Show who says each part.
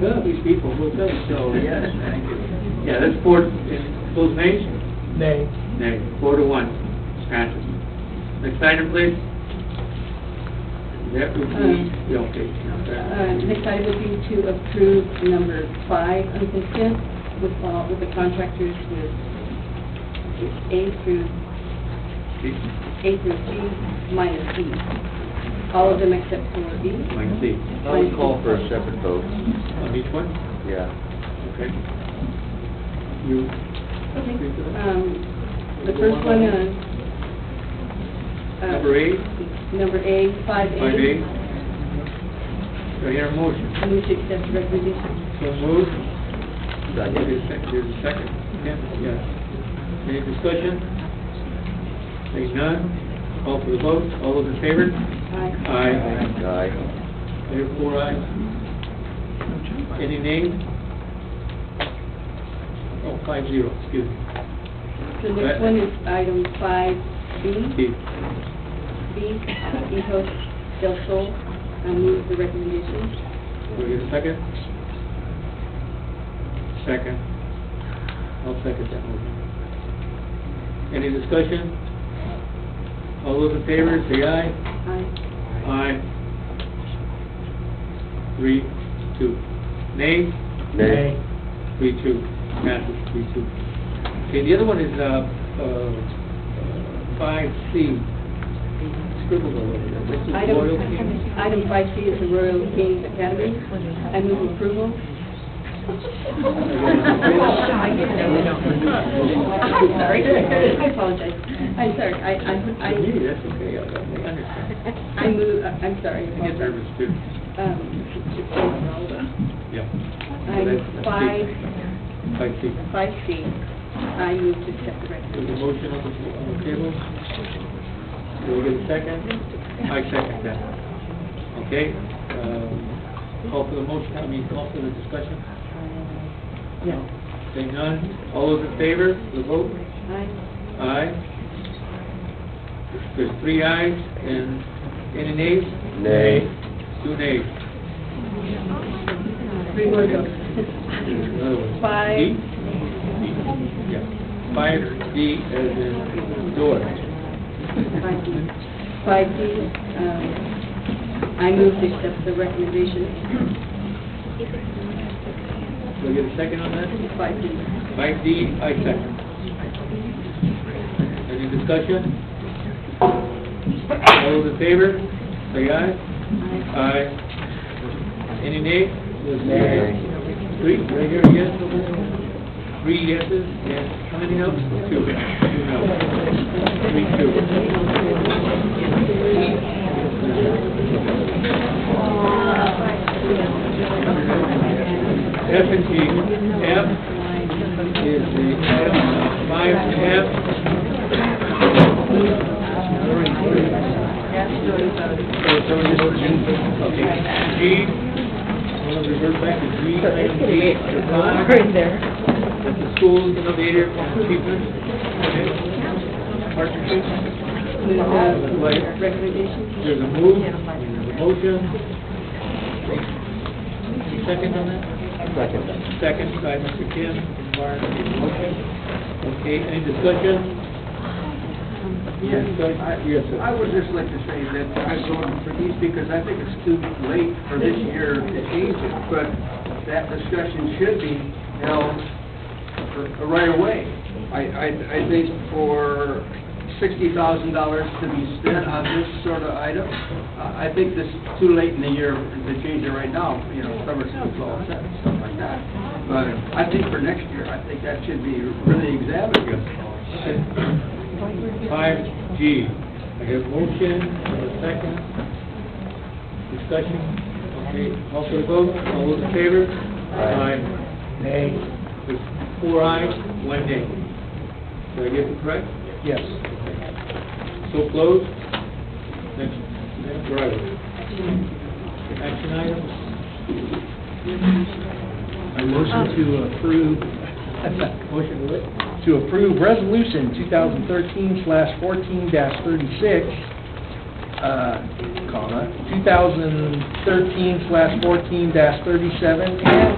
Speaker 1: None of these people will think so, yes, thank you. Yeah, that's four, is those names?
Speaker 2: Nay.
Speaker 1: Nay, four to one, it's passes. Next item, please. That would be, yeah, okay. now
Speaker 3: Uh,
Speaker 1: that-
Speaker 3: Next item would be to approve number five on consent with all, with the contractors with A through, A through G minus E. All of them except for B.
Speaker 1: Mike C.
Speaker 4: I would call for a separate vote,
Speaker 1: On each one?
Speaker 4: yeah.
Speaker 1: Okay. You,
Speaker 3: Um, The first one, uh... uh,
Speaker 1: number eight,
Speaker 3: Number A, five A.
Speaker 1: five A. Do I hear a motion?
Speaker 3: I move to accept the recommendation.
Speaker 1: So moved. There's a sec- there's a second. Yeah, yeah. Any discussion? Seeing none, call for the vote. All those in favor?
Speaker 3: Aye.
Speaker 1: Aye.
Speaker 4: Aye.
Speaker 1: There are four ayes. Any names? Oh, five zero, excuse me.
Speaker 3: The next one is item five
Speaker 1: Steve.
Speaker 3: B, Hijos del Sol, I move the recommendation.
Speaker 1: Do we get a second? Second. I'll second that motion. Any discussion? All those in favor, say aye.
Speaker 3: Aye.
Speaker 1: Aye. Three, two. Nay?
Speaker 4: Nay.
Speaker 1: Three, two. Passes, three, two. Okay, the other one is, uh, uh, five C. Scribbled all over there. This is
Speaker 3: Item,
Speaker 1: Royal King.
Speaker 3: item five C is the Royal Kings Academy, I move approval. Sorry, I apologize. I'm sorry, I, I,
Speaker 1: You,
Speaker 3: I,
Speaker 1: that's okay, I I understand.
Speaker 3: I move, uh, I'm sorry.
Speaker 1: I get nervous too.
Speaker 3: Um,
Speaker 1: Yeah.
Speaker 3: Item five
Speaker 1: Five C.
Speaker 3: Five C, I move to accept
Speaker 1: There's a
Speaker 3: the recommendation.
Speaker 1: motion on the, on the table. Do we get a second? I second that. Okay, um, call for the motion, I mean, call for the discussion?
Speaker 3: Yeah.
Speaker 1: Saying none, all those in favor, the vote?
Speaker 3: Aye.
Speaker 1: Aye. There's three ayes and any nays?
Speaker 4: Nay.
Speaker 1: Two nays.
Speaker 3: Three more votes.
Speaker 1: Another one.
Speaker 3: Five.
Speaker 1: D? Yeah. Five D as in door.
Speaker 3: Five D. Five D, um, I move to accept the recommendation.
Speaker 1: Do I get a second on that?
Speaker 3: Five D.
Speaker 1: Five D, I second. Any discussion? All those in favor, say aye.
Speaker 3: Aye.
Speaker 1: Aye. Any nay?
Speaker 4: Nay.
Speaker 1: Three, do I hear a yes? Three yeses, yes. How many noes? Two. Two noes. Three, two. F and G. F is the item five F. Okay, G, I'm gonna revert back to G, item G, July. That's the school innovative achievement, okay, partnership.
Speaker 3: Move
Speaker 1: Wait.
Speaker 3: the recommendation.
Speaker 1: There's a move, there's a motion. Any Second on that?
Speaker 4: Second.
Speaker 1: Second by Mr. Kim, Warren, the motion. Okay, any discussion? Yes, sir. Yes, sir.
Speaker 5: I would just like to say that I voted for these because I think it's too late for this year to change it, but that discussion should be held r- right away. I, I, I think for sixty thousand dollars to be spent on this sort of item, I I think this is too late in the year to change it right now, you know, summer school's all set and stuff like that. But I think for next year, I think that should be really examined.
Speaker 1: Five G, I have motion, and a second. Discussion, okay, call for the vote, all those in favor?
Speaker 4: Aye.
Speaker 2: Nay.
Speaker 1: There's Four ayes, one nay. Did I get it correct?
Speaker 2: Yes.
Speaker 1: So closed. Next, next item. Action
Speaker 2: I
Speaker 1: items?
Speaker 2: motion to approve,
Speaker 1: Motion to it?
Speaker 2: to approve Resolution 2013/14-36, uh,
Speaker 5: on it, 2013/14-37, and